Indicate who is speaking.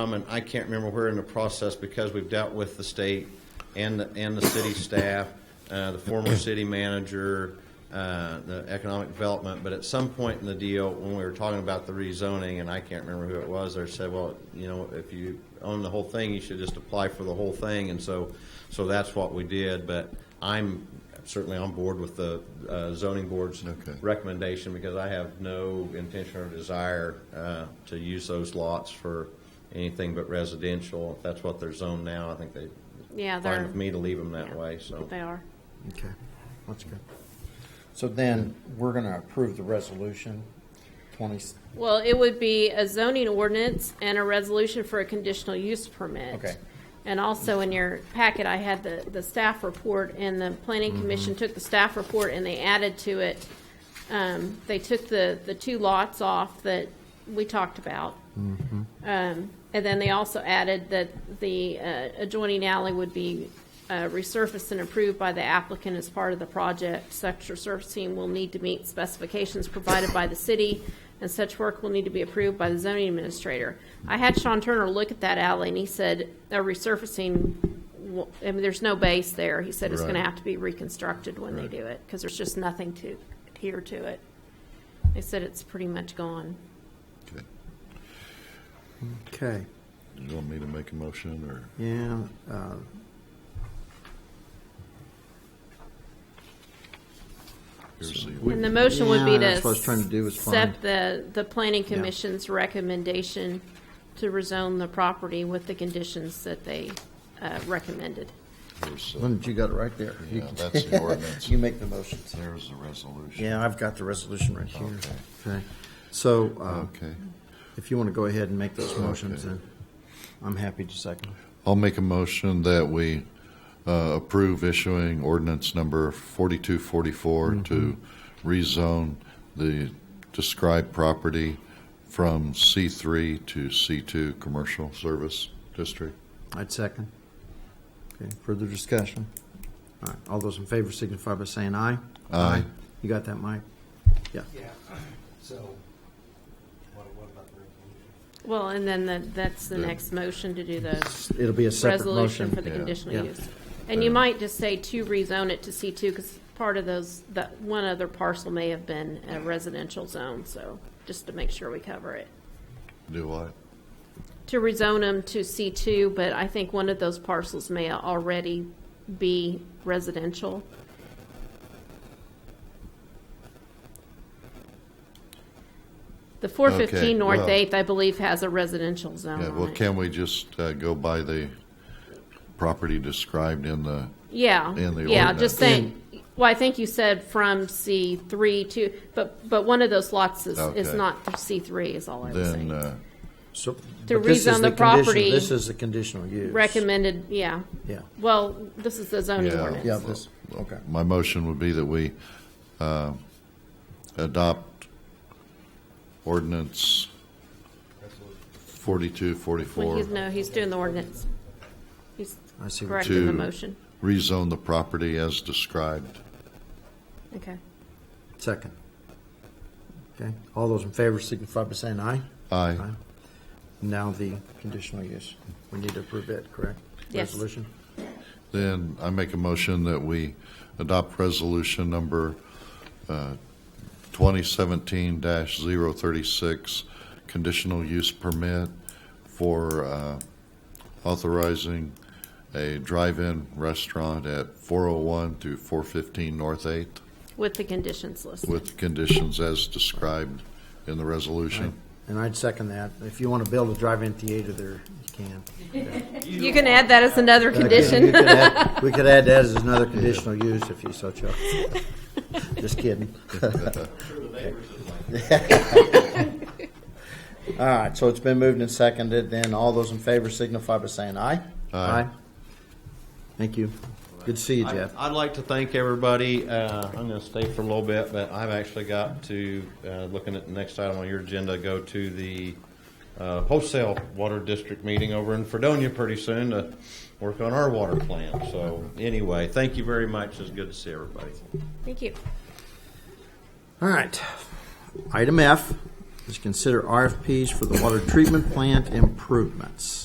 Speaker 1: Um, and I can't remember where in the process, because we've dealt with the state and, the and the city staff, uh, the former city manager, uh, the economic development, but at some point in the deal, when we were talking about the rezoning, and I can't remember who it was, they said, well, you know, if you own the whole thing, you should just apply for the whole thing, and so, so that's what we did, but I'm certainly on board with the uh, zoning board's
Speaker 2: Okay.
Speaker 1: recommendation because I have no intention or desire uh, to use those lots for anything but residential. If that's what they're zoned now, I think they,
Speaker 3: Yeah,
Speaker 1: fine
Speaker 3: they're,
Speaker 1: with me to leave them that
Speaker 3: yeah.
Speaker 1: way, so.
Speaker 3: they are.
Speaker 2: Okay, that's good.
Speaker 4: So then, we're going to approve the resolution 20,
Speaker 3: Well, it would be a zoning ordinance and a resolution for a conditional use permit.
Speaker 4: Okay.
Speaker 3: And also in your packet, I had the, the staff report, and the planning
Speaker 1: Mm-hmm.
Speaker 3: commission took the staff report and they added to it. Um, they took the, the two lots off that we talked about. Um, and then they also added that the uh, adjoining alley would be uh, resurfaced and approved by the applicant as part of the project. Such resurfacing will need to meet specifications provided by the city, and such work will need to be approved by the zoning administrator. I had Sean Turner look at that alley, and he said, a resurfacing, w- I mean, there's no base there. He said it's going to
Speaker 2: Right.
Speaker 3: have to be reconstructed when they
Speaker 2: Right.
Speaker 3: do it, because there's just nothing to adhere to it. They said it's pretty much gone.
Speaker 2: Okay.
Speaker 4: okay,
Speaker 2: You want me to make a motion, or?
Speaker 4: yeah. uh,
Speaker 2: here's the-
Speaker 3: And the motion would be
Speaker 4: Yeah,
Speaker 3: to.
Speaker 4: that's what I was trying to do, was find-
Speaker 3: Accept the, the planning commission's recommendation to rezone the property with the conditions that they uh, recommended.
Speaker 2: here's uh, the-
Speaker 4: Lynn, you got it right there. You
Speaker 2: Yeah,
Speaker 4: can-
Speaker 2: that's the ordinance.
Speaker 4: You make the motions.
Speaker 2: There's the resolution.
Speaker 4: Yeah, I've got the resolution right here.
Speaker 2: Okay.
Speaker 4: Okay, so uh,
Speaker 2: Okay.
Speaker 4: if you want to go ahead and make those motions,
Speaker 2: Okay.
Speaker 4: then I'm happy to second.
Speaker 2: I'll make a motion that we uh, approve issuing ordinance number 4244 to rezone the described property from C3 to C2 Commercial Service District.
Speaker 4: I'd second. Okay, further discussion? All right, all those in favor signify by saying aye.
Speaker 2: Aye.
Speaker 4: You got that, Mike? Yeah.
Speaker 5: Yeah, so, what, what about the resolution?
Speaker 3: Well, and then the- that's the
Speaker 2: The-
Speaker 3: next motion to do the
Speaker 4: It'll be a separate motion.
Speaker 3: resolution for the
Speaker 2: Yeah.
Speaker 3: conditional
Speaker 4: Yeah.
Speaker 3: use. And you might just say to rezone it to C2, because part of those, that one other parcel may have been a residential zone, so just to make sure we cover it.
Speaker 2: Do I?
Speaker 3: to rezone them to C2, but I think one of those parcels may already be residential. The 415 North
Speaker 2: well-
Speaker 3: 8th, I believe, has a residential zone
Speaker 2: Yeah,
Speaker 3: on
Speaker 2: well,
Speaker 3: it.
Speaker 2: can we just uh, go by the property described in the,
Speaker 3: Yeah,
Speaker 2: in the
Speaker 3: yeah, just
Speaker 2: ordinance.
Speaker 3: saying, well, I think you said from C3 to, but, but one of those lots is, is
Speaker 2: Okay.
Speaker 3: not C3 is all I was
Speaker 2: then,
Speaker 3: saying.
Speaker 2: uh,
Speaker 4: So,
Speaker 3: To
Speaker 4: but this is
Speaker 3: rezone the
Speaker 4: condition-
Speaker 3: property-
Speaker 4: This is the conditional use.
Speaker 3: Recommended, yeah.
Speaker 4: Yeah,
Speaker 3: Well, this is the zoning
Speaker 2: Yeah.
Speaker 3: ordinance.
Speaker 4: yeah, this, okay.
Speaker 2: my motion would be that we uh, adopt ordinance 4244.
Speaker 3: Well, he's, no, he's doing the ordinance. He's
Speaker 4: I see what
Speaker 3: correcting the
Speaker 2: To-
Speaker 3: motion.
Speaker 2: rezone the property as described.
Speaker 3: Okay.
Speaker 4: Second. Okay, all those in favor signify by saying aye.
Speaker 2: Aye.
Speaker 4: Now the conditional use. We need to approve it, correct?
Speaker 3: Yes.
Speaker 4: Resolution?
Speaker 2: Then I make a motion that we adopt resolution number uh, 2017-036, conditional use permit for uh, authorizing a drive-in restaurant at 401 to 415 North 8th
Speaker 3: With the conditions listed.
Speaker 2: with conditions as described in the resolution.
Speaker 4: And I'd second that. If you want to build a drive-in theater there, you can.
Speaker 3: You can add that as another
Speaker 4: We
Speaker 3: condition.
Speaker 4: could add- We could add that as another conditional use if you so chose. Just kidding. All right, so it's been moved and seconded, then all those in favor signify by saying aye.
Speaker 2: Aye.
Speaker 4: Thank you. Good to see you, Jeff.
Speaker 1: I- I'd like to thank everybody. Uh, I'm going to stay for a little bit, but I've actually got to, uh, looking at the next item on your agenda, go to the uh, wholesale water district meeting over in Fredonia pretty soon to work on our water plan. So anyway, thank you very much. It's good to see everybody.
Speaker 3: Thank you.
Speaker 4: All right. Item F, is consider RFPs for the water treatment plant improvements.